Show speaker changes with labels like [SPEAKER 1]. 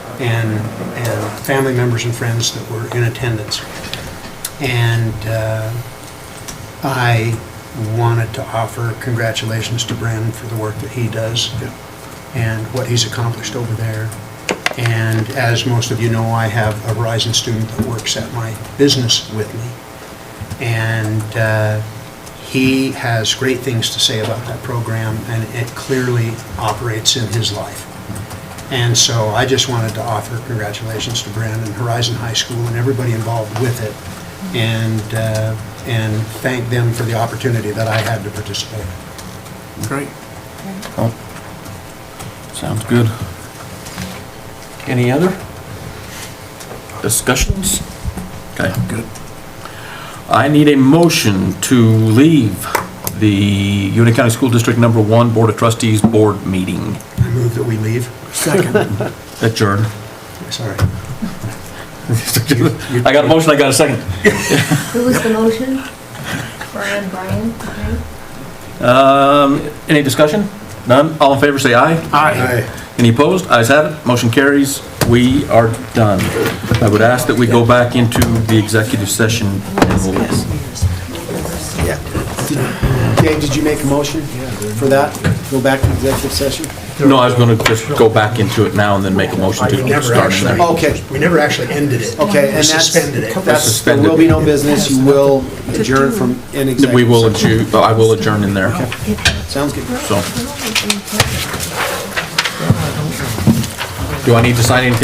[SPEAKER 1] and, and family members and friends that were in attendance. And uh, I wanted to offer congratulations to Bren for the work that he does and what he's accomplished over there. And as most of you know, I have a Verizon student that works at my business with me. And uh, he has great things to say about that program, and it clearly operates in his life. And so I just wanted to offer congratulations to Brandon, Horizon High School, and everybody involved with it, and, uh, and thank them for the opportunity that I had to participate.
[SPEAKER 2] Great.
[SPEAKER 3] Cool. Sounds good. Any other discussions? Okay.
[SPEAKER 2] Good.
[SPEAKER 3] I need a motion to leave the Union County School District Number One Board of Trustees Board Meeting.
[SPEAKER 1] I move that we leave.
[SPEAKER 2] Second.
[SPEAKER 3] Adjourn.
[SPEAKER 1] Sorry.
[SPEAKER 3] I got a motion, I got a second.
[SPEAKER 4] Who was the motion? Brian, Brian, okay.
[SPEAKER 3] Um, any discussion? None? All in favor, say aye.
[SPEAKER 2] Aye.
[SPEAKER 3] Any opposed? Ayes have it. Motion carries. We are done. I would ask that we go back into the executive session and we'll
[SPEAKER 5] Dave, did you make a motion for that? Go back to executive session?
[SPEAKER 3] No, I was gonna just go back into it now and then make a motion
[SPEAKER 1] We
[SPEAKER 3] to
[SPEAKER 1] never
[SPEAKER 3] start in
[SPEAKER 1] actually,
[SPEAKER 3] there.
[SPEAKER 5] Okay.
[SPEAKER 1] we never actually ended it.
[SPEAKER 5] Okay, and
[SPEAKER 1] We
[SPEAKER 5] that's,
[SPEAKER 1] suspended it.
[SPEAKER 5] that's, there will be no business, you will adjourn from an executive session.
[SPEAKER 3] We will adjourn, I will adjourn in there,
[SPEAKER 5] Sounds good.
[SPEAKER 3] so. Do I need to sign anything